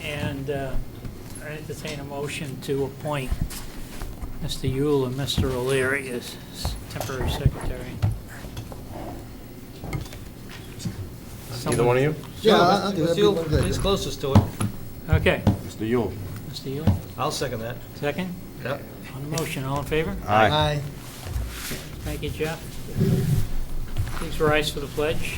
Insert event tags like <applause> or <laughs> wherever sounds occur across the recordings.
And uh, I entertain a motion to appoint Mr. Yule and Mr. O'Leary as s- temporary secretary. Either one of you? Yeah, I'll- I'll do that. It's you, He's closest to it. Okay, Mr. Yule? Mr. Yule, I'll second that. second. Yep. On the motion, all in favor? Aye. Aye. Thank you, Jeff. Please rise for the pledge.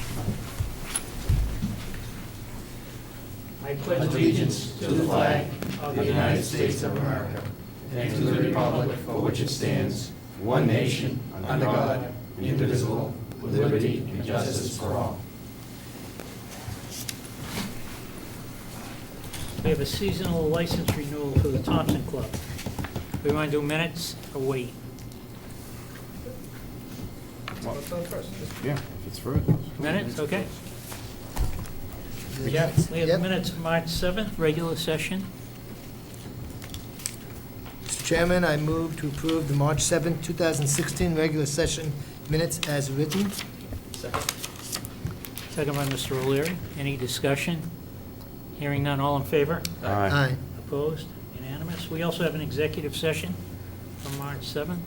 I pledge allegiance to the flag of the United States of America. and to the republic for which it stands, one nation, under God, indivisible, with liberty and justice for all. We have a seasonal license renewal for the Thompson Club. We want to do minutes or wait? Yeah, if it's for it. Minutes, okay. We Yep. have we have Yep. minutes, March 7th, regular session. Mr. Chairman, I move to approve the March seventh, two 2016 regular session minutes as written. Second by Mr. O'Leary. Any discussion? Hearing none, all in favor? Aye. Opposed? Unanimous? We also have an executive session on March 7th.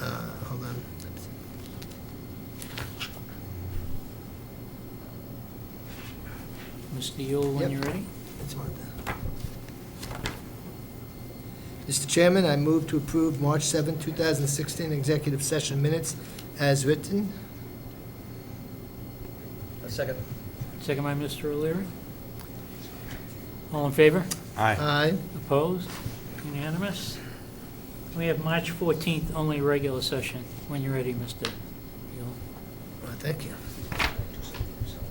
Uh, Hold on. Mr. Yule, when Yep. you're ready. It's on there. Mr. Chairman, I move to approve March seventh, two 2016 executive session minutes as written. A second. Second by Mr. O'Leary. All in favor? Aye. Aye. Opposed? Unanimous? We have March 14th, only regular session. When you're ready, Mr. Yule. Well, Thank you.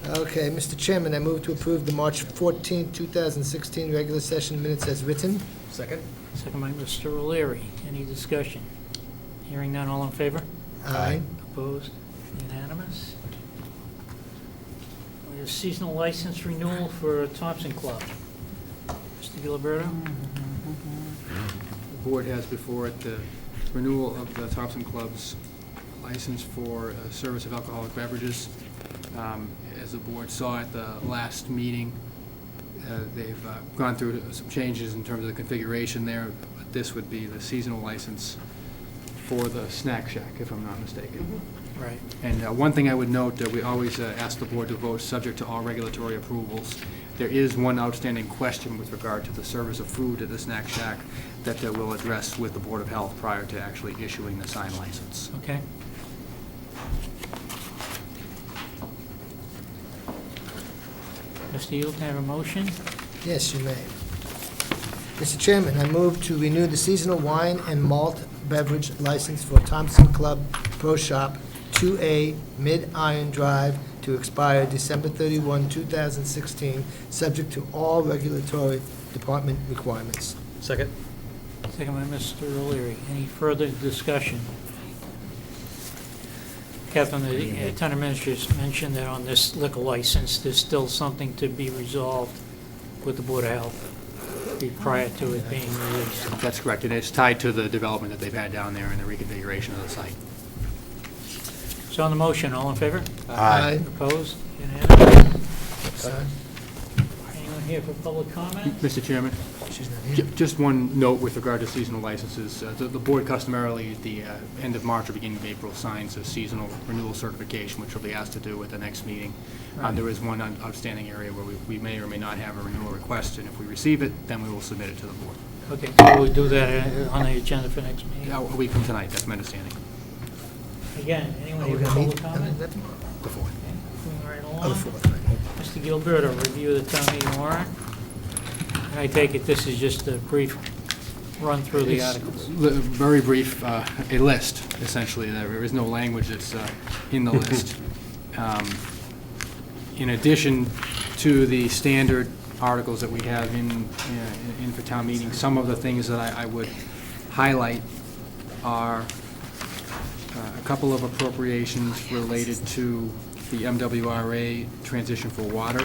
Okay, Mr. Chairman, I move to approve the March fourteenth, two 2016 regular session minutes as written. Second? Second by Mr. O'Leary. Any discussion? Hearing none, all in favor? Aye. Opposed? Unanimous? We have seasonal license renewal for Thompson Club. Mr. Gilberto? The board has before it the renewal of the Thompson Club's license for uh, service of alcoholic beverages. Um, As the board saw at the last meeting, uh, they've uh, gone through some changes in terms of the configuration there, but this would be the seasonal license for the snack shack, if I'm not mistaken. Right. And uh, one thing I would note, uh, we always uh, ask the board to vote subject to all regulatory approvals. There is one outstanding question with regard to the service of food at the snack shack that uh, we'll address with the Board of Health prior to actually issuing the sign license. Okay. Mr. Yule, can I have a motion? Yes, you may. Mr. Chairman, I move to renew the seasonal wine and malt beverage license for Thompson Club Pro Shop, 2A Mid Iron Drive, to expire December 31, 2016, subject to all regulatory department requirements. Second? Second by Mr. O'Leary. Any further discussion? Catherine, the uh, town administrator mentioned that on this liquor license, there's still something to be resolved with the Board of Health be- prior to it being released. That's correct, and it's tied to the development that they've had down there and the reconfiguration of the site. So on the motion, all in favor? Aye. Opposed? Unanimous? Aye. Anyone here for public comment? Mr. Chairman? She's not Ju- here. Just one note with regard to seasonal licenses. Uh, The the board customarily, at the uh, end of March or beginning of April, signs a seasonal renewal certification, which will be asked to do at the next meeting. Uh, There is one out- outstanding area where we- we may or may not have a renewal request, and if we receive it, then we will submit it to the board. Okay, so we'll do that uh, on the agenda for next meeting. Yeah, A week from tonight, that's my understanding, Again, anyone Are we here for gonna public meet? comment? That's- the fourth. Moving right On the along. fourth, right? Mr. Gilberto, review of the town meeting warrant. And I take it this is just a brief run through the articles. Li- Very brief, uh, a list, essentially. There is no language that's uh, <laughs> in the list. Um, In addition to the standard articles that we have in, uh, in- in for town meeting, some of the things that I I would highlight are uh, a couple of appropriations related to the MWRA transition for water.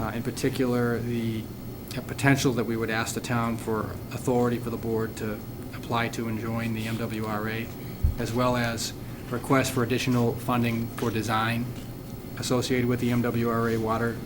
Uh, In particular, the potential that we would ask the town for authority for the board to apply to and join the MWRA, as well as request for additional funding for design associated with the MWRA water